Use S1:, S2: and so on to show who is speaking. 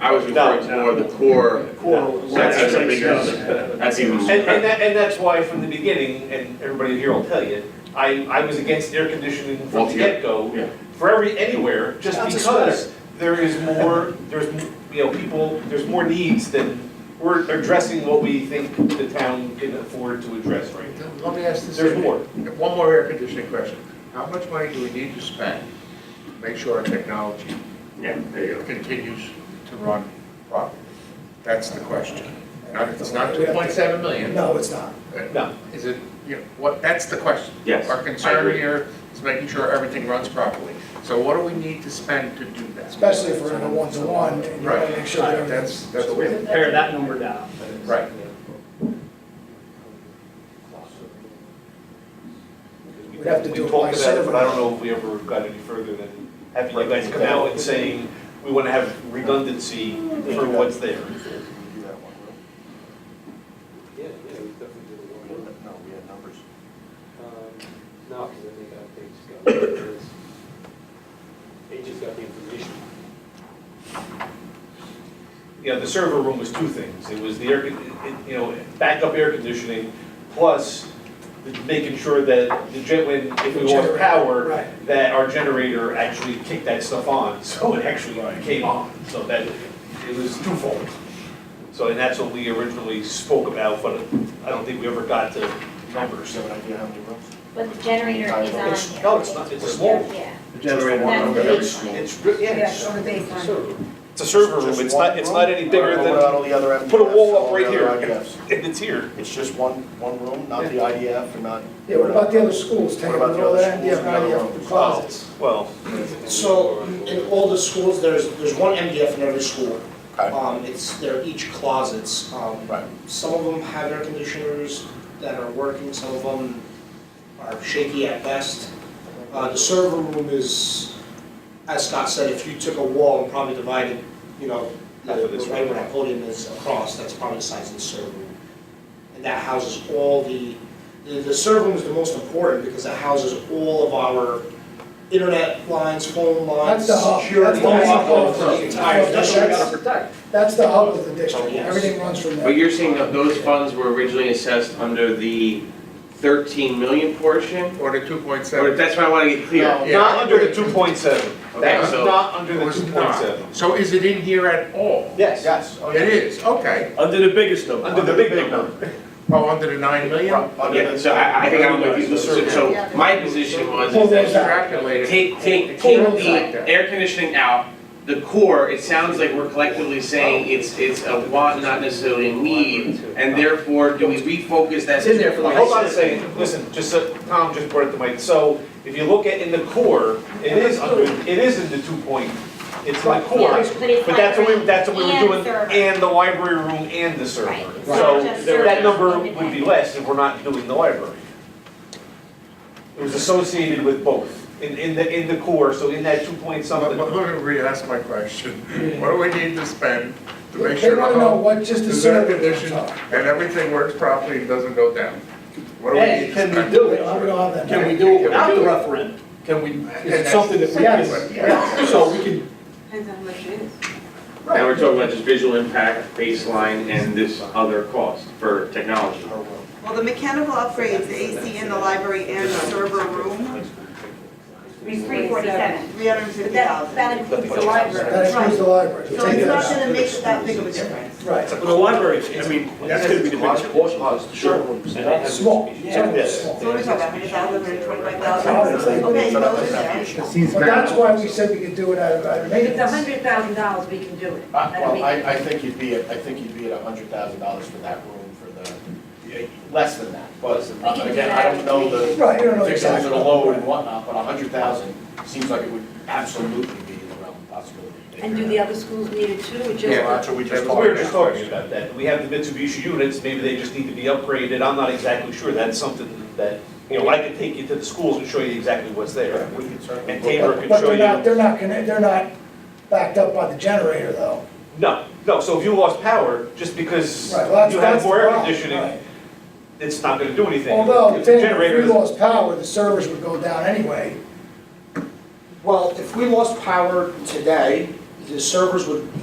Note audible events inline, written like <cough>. S1: I was referring to more of the core,
S2: That's
S1: that's a
S2: actually
S1: bigger, that's
S3: And, and
S1: even,
S3: that, and that's why from the beginning, and everybody here will tell you, I, I was against air conditioning from the
S1: Altogether.
S3: get-go,
S1: yeah.
S3: for every, anywhere, just
S4: That's a
S3: because there is more, there's, m- you know, people, there's more needs than, we're addressing what we think the town can afford to address right now.
S4: Let me ask this.
S3: There's more.
S4: One more air conditioning question. How much money do we need to spend to make sure our technology
S1: Yeah, there you
S4: continues to run properly? That's the question. Not, it's not two point seven million.
S5: No, it's not.
S3: No.
S4: Is it, you know, what, that's the question.
S1: Yes, I
S4: Our concern
S1: agree.
S4: here is making sure everything runs properly. So what do we need to spend to do that?
S5: Especially if we're in a one-to-one, and you want
S4: Right.
S5: to make sure that
S4: That's,
S5: everything's.
S4: that's the way.
S2: Pare that number down.
S4: Right.
S5: We'd have to do
S3: We
S5: it
S3: talked
S5: by
S3: about it,
S5: server.
S3: But I don't know if we ever got any further than having you guys come out and saying, we wanna have redundancy for what's there.
S6: Yeah, yeah, we definitely did a little bit.
S7: No, we had numbers.
S6: Um, No, because I think I- they just got, it's- they just got the information.
S3: you know, the server room was two things. It was the air, con- it- you know, backup air conditioning, plus the- making sure that the gen, when, if we lost
S5: Generator,
S3: power,
S5: right.
S3: that our generator actually kicked that stuff on, <laughs> so it actually came on. So that, it was twofold. So, and that's what we originally spoke about, but I don't think we ever got to numbers.
S7: So, do you have any rooms?
S8: But the generator is on here.
S3: It's- no, it's not. It's a small-
S8: Yeah.
S7: The generator.
S8: That's
S7: room.
S8: the
S7: Every
S8: baseline.
S7: school.
S3: It's, re- yeah, it's,
S9: on the baseline.
S3: it's a server room. It's not, it's not any bigger
S7: What about
S3: than,
S7: all the other
S3: put a
S7: MDFs,
S3: wall
S7: all
S3: up
S7: the
S3: right
S7: other
S3: here.
S7: IDFs?
S3: and it's here.
S7: uh, It's just one, one room, not the IDF and not.
S5: Yeah, what about the other schools,
S7: What
S5: taking
S7: about the
S5: all
S7: other
S5: that, and the
S7: schools and the other
S5: other
S7: ones?
S5: closets?
S3: Well,
S10: So in all the schools, there's, there's one MDF in every school.
S7: Okay.
S10: Um, it's, they're each closets. Um,
S7: Right.
S10: Some of them have air conditioners that are working, some of them are shaky at best. Uh, the server room is, as Scott said, if you took a wall and probably divided, you know, the
S3: Half of this
S10: the way
S3: room.
S10: where that podium is across, that's probably the size of the server room. And that houses all the, the, the server room is the most important because it houses all of our internet lines, phone lines,
S5: That's the hub.
S10: security.
S5: That's the main
S10: all of
S5: hub.
S10: the entire-
S5: That's- that's- That's the hub of the
S7: Oh,
S5: district,
S10: Yes.
S5: everything runs from there.
S11: But you're saying that those funds were originally assessed under the 13 million portion?
S4: Or the two point
S11: Or
S4: seven.
S11: that's what I want to get clear.
S4: Yeah.
S3: Not under the two point seven.
S11: Okay,
S3: That's
S11: so-
S3: not under
S4: It
S3: the
S4: was
S3: two point seven.
S4: not. So is it in here at all?
S3: Yes,
S7: Yes. oh,
S4: It
S7: yeah.
S4: is, okay.
S11: Under the biggest number.
S3: under the big number.
S4: Oh, under the nine million?
S11: Yeah, so I, I think I'm with you. So, so my position was
S5: Pull
S11: is
S5: those
S11: that
S5: out.
S4: Calculated.
S11: take, take,
S4: Pull
S11: take
S4: those out.
S11: the air conditioning out, the core, it sounds like we're collectively saying it's, it's a want, not necessarily a need, and therefore, do we refocus that?
S3: It's in there for the.
S11: whole
S3: Hold on a second, listen, just, so- Tom just brought it to my, so if you look at in the core, it is under, it is in the two point, it's like core.
S8: Yeah, But it's
S3: But that's what we,
S8: library
S3: that's what we
S8: and
S3: were doing,
S8: server.
S3: and the library room and the server.
S8: Right, it's
S3: So
S8: not just
S3: that
S8: server,
S3: number
S8: it's
S3: would be
S8: independent.
S3: less if we're not doing the library. It was associated with both, in, in the, in the core, so in that two point
S4: Let
S3: something.
S4: let me re-ask my question. What do we need to spend to make
S5: They
S4: sure the
S5: want to know
S4: home
S5: what just the
S4: is air
S5: server rooms
S4: conditioned
S5: are.
S4: and everything works properly and doesn't go down? What do we
S2: Hey,
S4: need to
S2: can we
S4: spend?
S2: do
S5: We
S2: it?
S5: don't we don't have
S2: Can
S5: that.
S2: we do it without the referendum? Can we, is it something that we
S4: Yes.
S2: can, so we can,
S9: Depends on how much it is.
S11: Now we're talking about just visual impact, baseline, and this other cost for technology.
S9: Well, the mechanical upgrades, the AC in the library and the server room,
S8: It's three forty-seven.
S9: three hundred and
S8: But
S9: fifty
S8: that,
S9: thousand.
S8: that includes the library.
S5: That includes the library.
S9: So it's not gonna make that big of a difference.
S5: Right,
S2: well, the library, I mean, that's gonna be the biggest portion.
S7: Sure.
S5: small,
S3: Yeah.
S5: several small.
S9: So what are we talking about, hundred thousand, hundred twenty-five
S5: That's
S9: thousand?
S5: how it's
S9: Okay,
S7: uh,
S9: so it's there.
S5: But that's why we said we could do it out of, out of
S9: If
S5: maintenance.
S9: it's a hundred thousand dollars, we can do it.
S7: Uh, Well, I, I think you'd be, at- I think you'd be at a hundred thousand dollars for that room for the, yeah, less than that. But
S8: We can do
S7: again, I
S8: that.
S7: don't know the
S5: Right, you don't know
S7: particulars of
S5: exactly.
S7: the lower and whatnot, but a hundred thousand seems like it would absolutely be in the realm of possibility.
S9: And do the other schools need it too, or
S4: Yeah,
S9: just?
S7: that's what we just
S4: that
S3: We
S4: was
S7: talked
S3: were
S4: my
S3: just
S4: question.
S3: talking about that, we have the Mitsubishi units, maybe they just need to be upgraded, I'm not exactly sure, that's something that, you know, I could take you to the schools and show you exactly what's there.
S7: We could certainly
S3: And
S7: look
S3: Tabor
S7: at-
S3: could
S5: But
S3: show
S5: they're not,
S3: you,
S5: they're not, gonna- they're not backed up by the generator though.
S3: no, no, so if you lost power, just because
S5: Right, well, that's-
S3: you have
S5: that's
S3: more
S5: the
S3: air
S5: problem,
S3: conditioning,
S5: right.
S3: it's not gonna do anything.
S5: Although,
S3: If
S5: if
S3: the
S5: they- if
S3: generator
S5: we
S3: is-
S5: lost power, the servers would go down anyway.
S10: Well, if we lost power today,
S5: The servers would